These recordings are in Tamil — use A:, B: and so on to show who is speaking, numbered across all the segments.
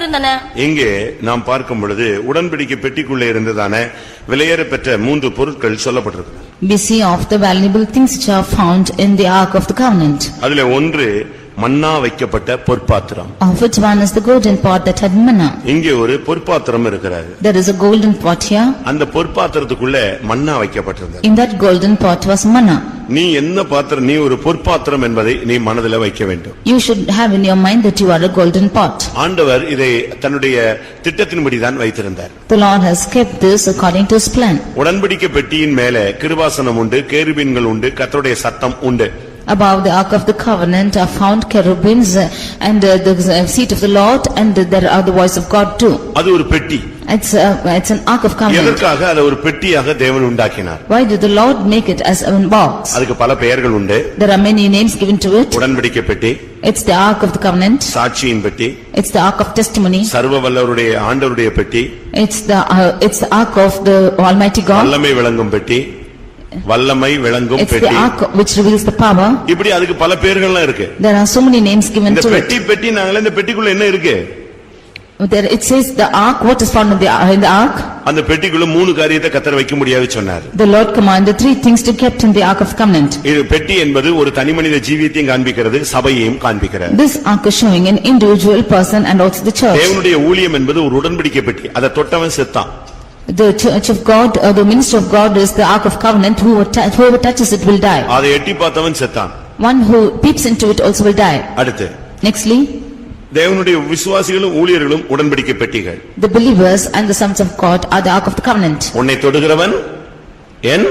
A: இருந்தன
B: இங்கே நாம் பார்க்கும் பொழுது உடன்படிக்கை பெட்டிக்குள்ளே இருந்ததான விலையேற பெற்ற மூன்று பொருட்கள் சொல்லப்பட்டிருக்கிறது
C: We see of the valuable things which are found in the ark of the covenant.
B: அதுல ஒன்று மன்னா வைக்கப்பட்ட பொற்பாத்திரம்
C: Of which one is the golden pot that had manna.
B: இங்கே ஒரு பொற்பாத்திரம் இருக்கிறாரு
C: There is a golden pot here.
B: அந்த பொற்பாத்திரத்துக்குள்ள மன்னா வைக்கப்பட்டிருந்தது
C: In that golden pot was manna.
B: நீ என்ன பாத்திரம் நீ ஒரு பொற்பாத்திரம் என்பதை நீ மனதில் வைக்க வேண்டும்
C: You should have in your mind that you are a golden pot.
B: ஆண்டவர் இதை தன்னுடைய திட்டத்தின்படிதான் வைத்திருந்தார்
C: The Lord has kept this according to his plan.
B: உடன்படிக்கை பெட்டியின் மேல கிருபாசனம் உண்டு கேருபீன்கள் உண்டு கர்த்தருடைய சத்தம் உண்டு
C: Above the ark of the covenant are found cherubims uh, and uh, the uh, seat of the Lord and there are the voice of God too.
B: அது ஒரு பெட்டி
C: It's a- it's an ark of covenant.
B: எதற்காக அதை ஒரு பெட்டியாக தேவன் உண்டாக்கினார்
C: Why did the Lord make it as a box?
B: அதுக்கு பல பெயர்கள் உண்டு
C: There are many names given to it.
B: உடன்படிக்கை பெட்டி
C: It's the ark of the covenant.
B: சாட்சியின் பெட்டி
C: It's the ark of testimony.
B: சர்வ வல்லவருடைய ஆண்டவருடைய பெட்டி
C: It's the, uh, it's the ark of the Almighty God.
B: வல்லமை விளங்கும் பெட்டி வல்லமை விளங்கும்
C: It's the
B: பெட்டி
C: ark which reveals the power.
B: இப்படி அதுக்கு பல பெயர்கள்லாம் இருக்கு
C: There are so many names given
B: இந்த
C: to it.
B: பெட்டி பெட்டி நாங்களே இந்த பெட்டிக்குள்ள என்ன இருக்கு
C: There, it says the ark, what is found in the, in the ark?
B: அந்த பெட்டிக்குள்ள மூணு காரியத்தை கத்தர் வைக்க முடியாது சொன்னார்
C: The Lord commanded three things to kept in the ark of covenant.
B: இது பெட்டி என்பது ஒரு தனி மனித ஜீவியத்தையும் காண்பிக்கிறது சபையையும் காண்பிக்கிறது
C: This ark is showing an individual person and also the church.
B: தேவனுடைய ஊழியம் என்பது ஒரு உடன்படிக்கை பெட்டி அதை தொட்டவன் செத்தான்
C: The church of God, or the minister of God is the ark of covenant, whoever tou- whoever touches it will die.
B: அதை எட்டி பார்த்தவன் செத்தான்
C: One who peeps into it also will die.
B: அடுத்து
C: Nextly,
B: தேவனுடைய விசுவாசிகளும் ஊழியர்களும் உடன்படிக்கை பெட்டிகள்
C: the believers and the sons of God are the ark of the covenant.
B: உன்னை தொடுகிறவன் என்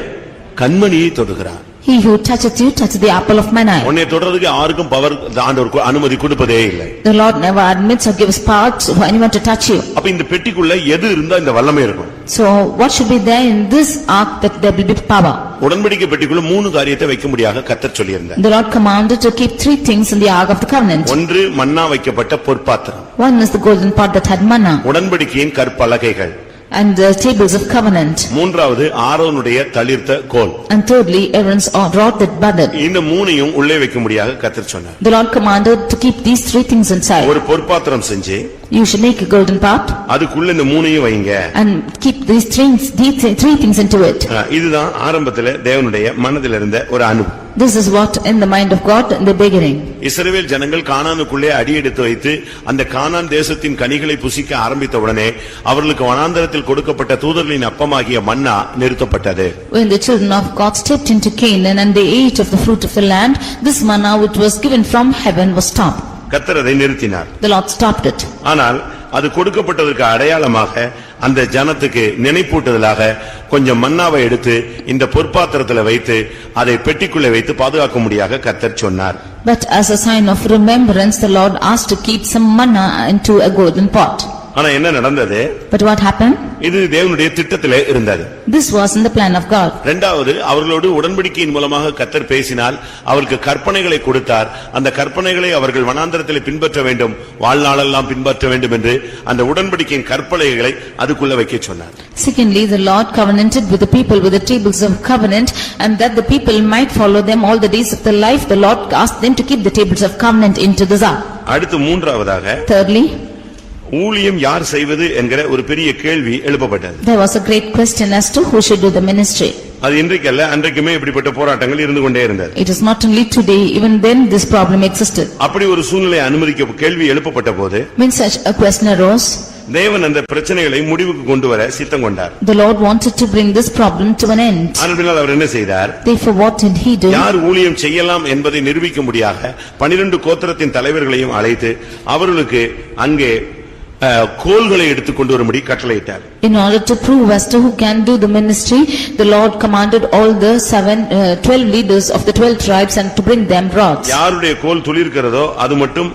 B: கண்மணியை தொடுகிறான்
C: He who toucheth you toucheth the apple of mine eye.
B: உன்னை தொடர்றதுக்கு யாருக்கும் பவர் ஆண்டவர் கு- அனுமதி கொடுப்பதே இல்லை
C: The Lord never admits or gives power to- for anyone to touch you.
B: அப்ப இந்த பெட்டிக்குள்ள எது இருந்தா இந்த வல்லமை இருக்கும்
C: So what should be there in this ark that there will be power?
B: உடன்படிக்கை பெட்டிக்குள்ள மூணு காரியத்தை வைக்க முடியாத கத்தர் சொல்லியிருந்தார்
C: The Lord commanded to keep three things in the ark of the covenant.
B: ஒன்று மன்னா வைக்கப்பட்ட பொற்பாத்திரம்
C: One is the golden pot that had manna
B: உடன்படிக்கையின் கற்பலகைகள்
C: and the tables of covenant.
B: மூன்றாவது ஆரோனுடைய தளிர்த்த கோல்
C: And thirdly, Aaron's rod that budded.
B: இந்த மூணையும் உள்ளே வைக்க முடியாத கத்தர் சொன்னார்
C: The Lord commanded to keep these three things inside.
B: ஒரு பொற்பாத்திரம் செஞ்சு
C: You should make a golden pot
B: அதுக்குள்ள இந்த மூணையும் வைங்க
C: and keep these three, these three things into it.
B: ஆ, இதுதான் ஆரம்பத்துல தேவனுடைய மனதில் இருந்த ஒரு அணு
C: This is what in the mind of God in the beginning.
B: இஸ்ரவேல் ஜனங்கள் கானானுக்குள்ளே அடியெடுத்து வைத்து அந்த கானான் தேசத்தின் கனிகளை புசிக்க ஆரம்பித்த உடனே அவர்களுக்கு வனாந்தரத்தில் கொடுக்கப்பட்ட தூதர்களின் அப்பமாகிய மன்னா நிறுத்தப்பட்டது
C: When the children of God stepped into Canaan and they ate of the fruit of the land, this manna which was given from heaven was stopped.
B: கத்தர் அதை நிறுத்தினார்
C: The Lord stopped it.
B: ஆனால் அது கொடுக்கப்பட்டதற்கு அடையாளமாக அந்த ஜனத்துக்கு நினைப்பூட்டுதலாக கொஞ்சம் மன்னாவை எடுத்து இந்த பொற்பாத்திரத்துல வைத்து அதை பெட்டிக்குள்ளே வைத்து பாதுகாக்க முடியாக கத்தர் சொன்னார்
C: But as a sign of remembrance, the Lord asked to keep some manna into a golden pot.
B: ஆனா என்ன நடந்தது
C: But what happened?
B: இது தேவனுடைய திட்டத்திலே இருந்தது
C: This was in the plan of God.
B: இரண்டாவது அவர்களோடு உடன்படிக்கையின் மூலமாக கத்தர் பேசினால் அவருக்கு கற்பனைகளை கொடுத்தார் அந்த கற்பனைகளை அவர்கள் வனாந்தரத்திலே பின்பற்ற வேண்டும் வாழ்நாளெல்லாம் பின்பற்ற வேண்டும் என்று அந்த உடன்படிக்கையின் கற்பனைகளை அதுக்குள்ள வைக்கச் சொன்னார்
C: Secondly, the Lord covenanted with the people with the tables of covenant and that the people might follow them all the days of their life, the Lord asked them to keep the tables of covenant into the ark.
B: அடுத்து மூன்றாவதாக
C: Thirdly,
B: ஊழியம் யார் செய்வது என்கிற ஒரு பெரிய கேள்வி எழுப்பப்பட்டது
C: there was a great question as to who should do the ministry.
B: அது இன்றைக்கல்ல அன்றைக்குமே இப்படிப்பட்ட போராட்டங்கள் இருந்து கொண்டே இருந்தது
C: It is not only today, even then this problem existed.
B: அப்படி ஒரு சூழ்நிலை அனுமதிக்க கேள்வி எழுப்பப்பட்ட போது
C: When such a question arose,
B: தேவன் அந்த பிரச்சனைகளை முடிவுக்கு கொண்டு வர சித்தம் கொண்டார்
C: the Lord wanted to bring this problem to an end.
B: ஆனால் பின்னால் அவர் என்ன செய்தார்
C: Therefore, what did he do?
B: யார் ஊழியம் செய்யலாம் என்பதை நிரூபிக்க முடியாக பனிரெண்டு கோத்திரத்தின் தலைவர்களையும் அழைத்து அவர்களுக்கு அங்கே அஹ், கோல்களை எடுத்துக் கொண்டு வரும்படி கட்டளையிட்டார்
C: In order to prove as to who can do the ministry, the Lord commanded all the seven, uh, twelve leaders of the twelve tribes and to bring them rods.
B: யாருடைய கோல் துளிர்க்கிறதோ அது மட்டும்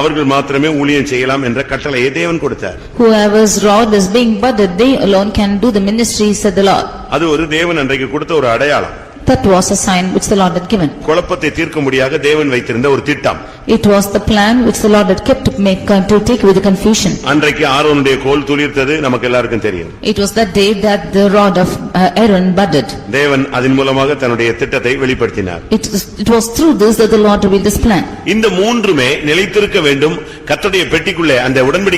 B: அவர்கள் மாத்திரமே ஊழியம் செய்யலாம் என்ற கட்டளையை தேவன் கொடுத்தார்
C: Whoever's rod is being budded, they alone can do the ministry, said the Lord.
B: அது ஒரு தேவன் அன்றைக்கு கொடுத்த ஒரு அடையாளம்
C: That was a sign which the Lord had given.
B: குழப்பத்தை தீர்க்க முடியாக தேவன் வைத்திருந்த ஒரு திட்டம்
C: It was the plan which the Lord had kept to make, uh, to take away the confusion.
B: அன்றைக்கு ஆரோனுடைய கோல் துளிர்த்தது நமக்கு எல்லாருக்கும் தெரியும்
C: It was that day that the rod of uh, Aaron budded.
B: தேவன் அதன் மூலமாக தன்னுடைய திட்டத்தை வெளிப்படுத்தினார்
C: It was- it was through this that the Lord revealed this plan.
B: இந்த மூன்றுமே நிலைத்திருக்க வேண்டும் கர்த்தருடைய பெட்டிக்குள்ளே அந்த உடன்படிக்கை